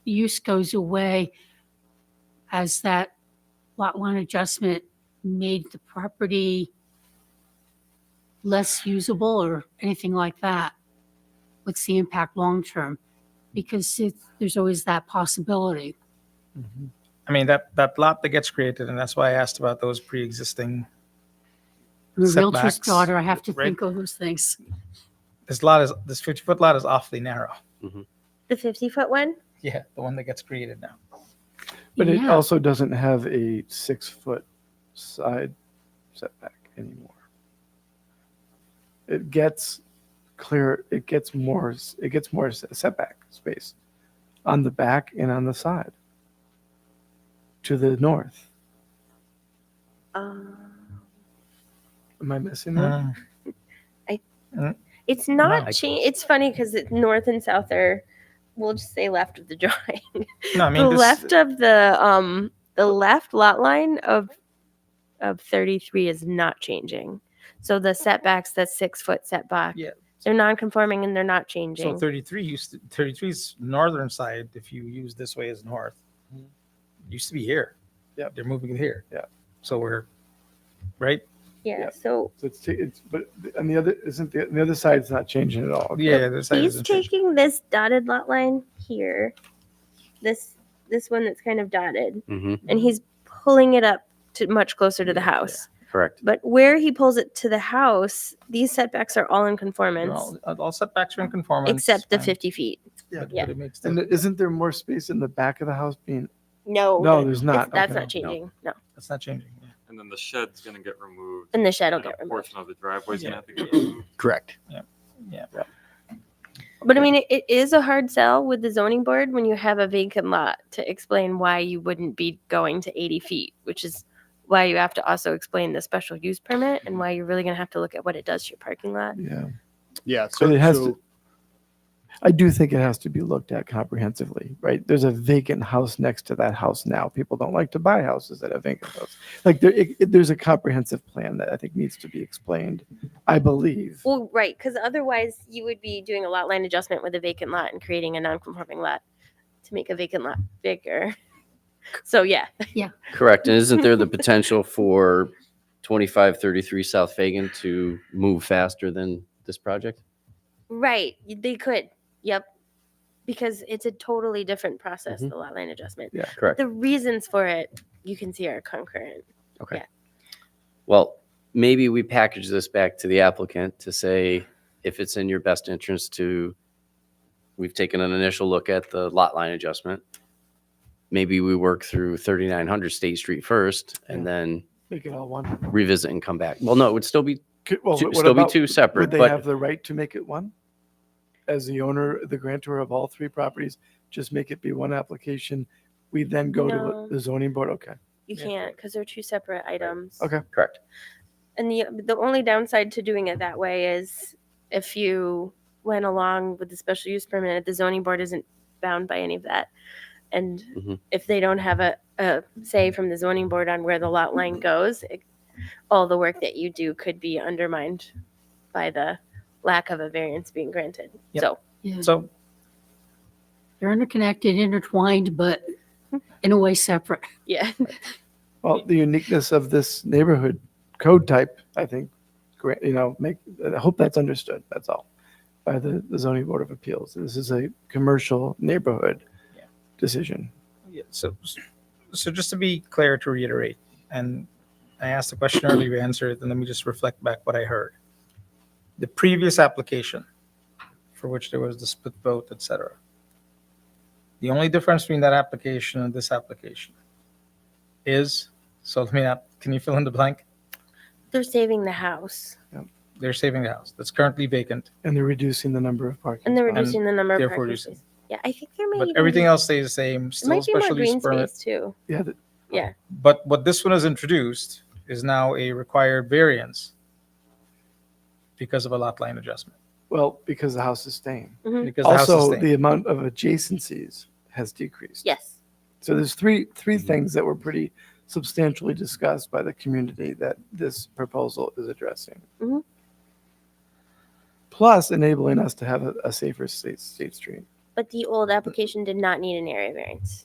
use goes away, has that lot line adjustment made the property less usable or anything like that? What's the impact long-term? Because it, there's always that possibility. I mean, that, that lot that gets created, and that's why I asked about those pre-existing, I'm a realtor's Setbacks, daughter, I have to right? think of those things. this lot is, this 50-foot lot is awfully narrow. The 50 foot one? Yeah, the one that gets created now. But it Yeah. also doesn't have a six foot side setback anymore. It gets clear. It gets more. s- It gets more s- setback space on the back and on the side. To the north. Um, Am I missing that? Uh, Mm. it's not. Wow. Cha- it's funny because north and south are. We'll just say left of the drawing. No, I mean, the this, left of the um the left lot line of of 33 is not changing. So the setbacks, that six foot setback, Yeah. they're non-conforming and they're not so changing. 33 used to, 33's northern side, if you use this way is north, Mhm. used to be here. Yep. They're moving it here. Yeah. So we're, right? yeah, yeah. So So it's, ta- it's but th- and the other isn't the, the other side's not changing at all. Yeah, this side he's isn't changing. taking this dotted lot line here, this this one that's kind of dotted, hmm and he's pulling it up to much closer to the house. Correct. But where he pulls it to the house, these setbacks are all in conformance All all setbacks are in conformance. except the and- 50 feet. but- but yeah. it makes And the- isn't there more space in the back of the house being? No, No, there's it's- not. that's Okay. not changing. no. That's not changing. yeah. And then the shed's gonna get removed. and the shed will and get a removed. portion of the driveway's Yeah. gonna have to get removed. Correct. But I mean, it, it is a hard sell with the zoning board when you have a vacant lot to explain why you wouldn't be going to 80 feet, which is why you have to also explain the special use permit and why you're really going to have to look at what it does to your parking lot. Yeah. Yeah. So it has to- I do think it has to be looked at comprehensively, right? There's a vacant house next to that house now. People don't like to buy houses that have vacant houses. Like there, it, it- there's a comprehensive plan that I think needs to be explained. I believe. Well, right, because otherwise you would be doing a lot line adjustment with a vacant lot and creating a non-conforming lot to make a vacant lot bigger. So yeah, Correct. And isn't there the potential for 2533 South Fagan to move faster than this project? right, y- they could, yep, because it's a totally different process, the lot line adjustment. Correct. the reasons for it you can see are concurrent. Well, maybe we package this back to the applicant to say if it's in your best interest to, we've taken an initial look at the lot line adjustment. Maybe we work through 3900 State Street first and then Make it all one. revisit and come back. Well, no, it would still be, Could, well, two- what still be about- two separate, Would they but have the right to make it one? As the owner, the grantor of all three properties, just make it be one application. We then go No. to the zoning board. Okay. You Yeah. can't because they're two separate items. Okay. correct. And the the only downside to doing it that way is if you went along with the special use permit, the zoning board isn't bound by any of that. And Mhm. if they don't have a, a say from the zoning board on where the lot line goes, it, all the work that you do could be undermined by the lack of a variance being granted. Yep. So Mm-hmm. Yeah, So they're interconnected, intertwined, but in a way separate. yeah. Well, the uniqueness of this neighborhood code type, I think, gra- you know, make, I hope that's understood, that's all, by the the zoning board of appeals. This is a commercial neighborhood Yeah. decision. Yeah, so, so just to be clear, to reiterate, and I asked the question earlier, you answered it, and let me just reflect back what I heard. The previous application, for which there was the split vote, et cetera. The only difference between that application and this application is, so let me, not- can you fill in the blank? They're saving the house. They're saving the house that's currently vacant, And they're reducing the number of parking. And they're spots. reducing the number of therefore parking reducing. spaces. Yeah, I think there may but even everything be- else stays the same, There still might be more special use green permit. space too. Yeah, the- Yeah, But what this one has introduced is now a required variance because of a lot line adjustment. well, because the house is staying. Because the house is Also, staying. the amount of adjacencies has decreased. yes. So there's three, three Mhm. things that were pretty substantially discussed by the community that this proposal is addressing. Mhm. Plus enabling us to have a, a safer state, state street. but the old application did not need an area variance.